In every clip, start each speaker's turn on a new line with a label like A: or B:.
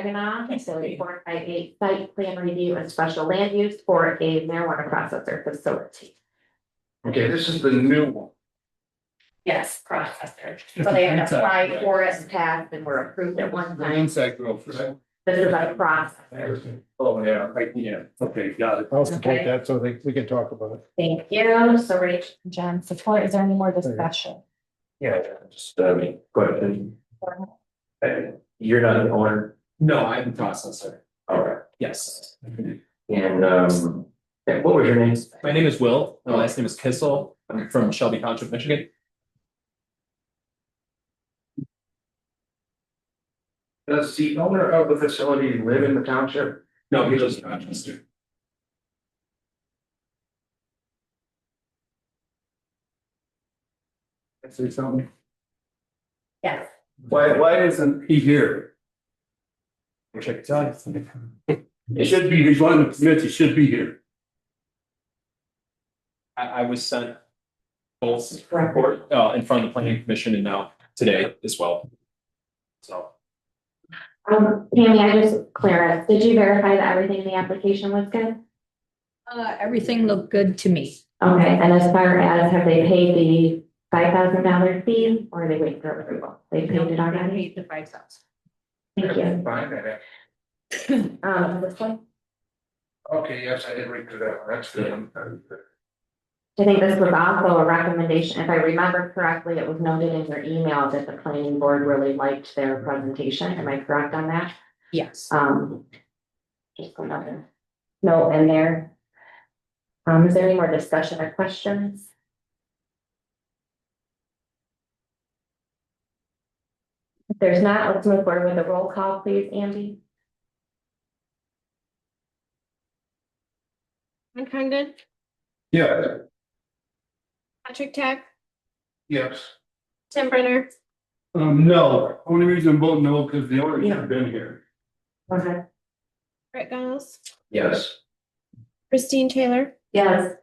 A: Saginaw, facility four five eight, site plan review and special land use for a marijuana processor facility.
B: Okay, this is the new one.
A: Yes, processor. So they had applied for us, passed, and were approved at one time.
B: Inside growth, right?
A: This is a processor.
B: Oh, yeah, right, yeah, okay, got it.
C: I'll support
A: Okay.
C: that, so they, we can talk about it.
A: Thank you. So Rach,
D: John, support, is there any more discussion?
E: Yeah, just,
F: uh,
E: I mean, question. Uh, You're not an owner,
F: No, I'm the processor.
E: all right,
F: Yes.
E: and, um, and what was your name?
F: My name is Will. My last name is Kissel. I'm from Shelby Township, Michigan.
B: Does the owner of the facility live in the township?
F: No, he lives in Rochester. Say something.
A: yes.
B: Why, why isn't?
F: He here. Wish I could tell you. It should be, he's one of the permits, he should be here. I, I was sent both report, uh, in front of the planning commission and now today as well. So.
A: Um, Tammy, I just, Clara, did you verify that everything in the application was good?
G: Uh, everything looked good to me.
A: Okay, and as far as have they paid the five thousand dollar fee or are they waiting for approval? They paid it already?
G: Paid the five thousand.
A: Thank you.
B: Fine, I-
A: Um, this one,
B: okay, yes, I did read through that, one. that's good.
A: I think this was also a recommendation. If I remember correctly, it was noted in your email that the planning board really liked their presentation. Am I correct on that?
G: Yes.
A: Um. Just another note in there. Um, is there any more discussion or questions? If there's not, let's move forward with a roll call, please, Andy.
H: Ron Condon,
B: Yeah.
H: Patrick Tech,
B: Yes.
H: Tim Brenner,
B: Um, no, only reason I'm voting no, because the owner's not been here.
A: Okay.
H: Brett Giles,
B: Yes.
H: Christine Taylor,
A: Yes.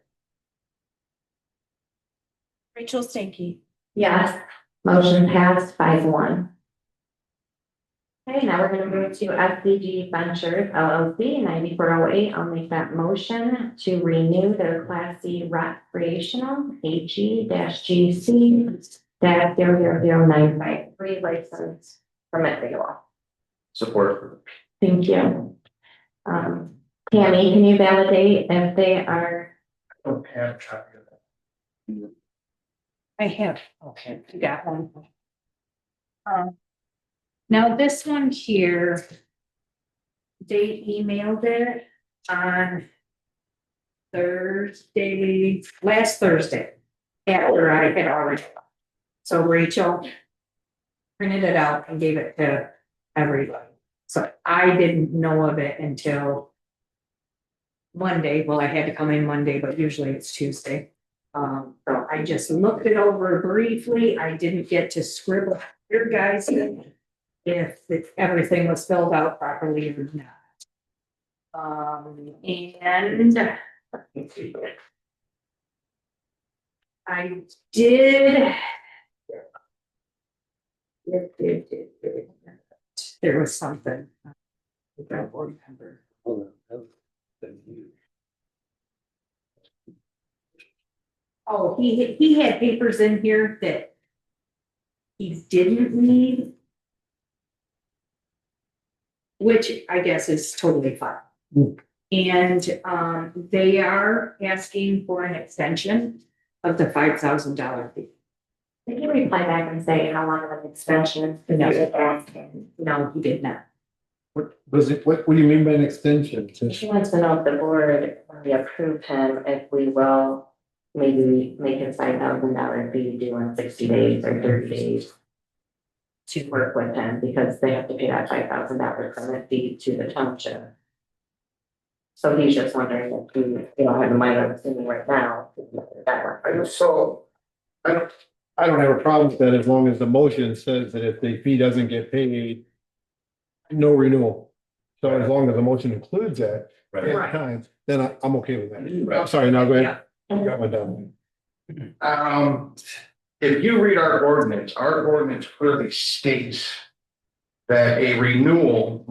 H: Rachel Stankey.
A: Yes. Motion passed five one. Okay, now we're gonna move to FCG Ventures LLC ninety-four oh eight. I'll make that motion to renew their Class C recreational AG G C dash zero zero zero nine five three license permit renewal.
E: Support.
A: Thank you. Um, Tammy, can you validate if they are,
B: Don't have a copy of that.
G: I have, okay, you got one. Um, Now this one here. They emailed it on Thursday, last Thursday, after I had already. So Rachel printed it out and gave it to everybody. So I didn't know of it until Monday. Well, I had to come in Monday, but usually it's Tuesday. Um, so I just looked it over briefly. I didn't get to scribble your guys in if if everything was filled out properly or not. Um, and I did did, did, did, did. There was something. I don't remember. Oh, he, he had papers in here that he didn't need. Which I guess is totally fine. And, um, they are asking for an extension of the five thousand dollar fee.
A: can you reply back and say how long of an extension? is it asking?
G: No, he did not.
C: What, was it, what, what do you mean by an extension? Just-
A: She wants to know if the board, when we approve him, if we will maybe make his five thousand dollar fee due in sixty days or thirty days to work with him, because they have to pay that five thousand dollar permit fee to the township. So he's just wondering if we, you know, have the money that's in right now. that work.
B: I just saw, I don't,
C: I don't have a problem with that as long as the motion says that if the fee doesn't get paid, no renewal. So as long as the motion includes that, at
B: Right.
C: times, then I, I'm okay with that. I'm sorry, now go ahead.
A: Yeah.
C: Got my done.
B: Um, if you read our ordinance, our ordinance clearly states that a renewal